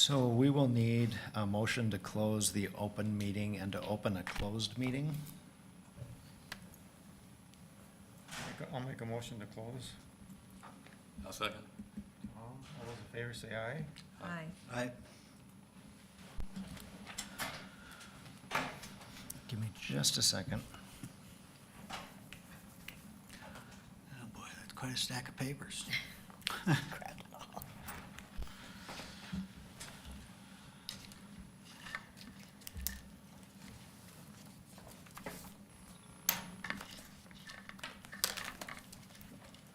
So we will need a motion to close the open meeting and to open a closed meeting. Make a- I'll make a motion to close. I'll second. All Um, all those in favor say aye. Aye. I. Give me just a second. Oh boy, that's quite a stack of papers.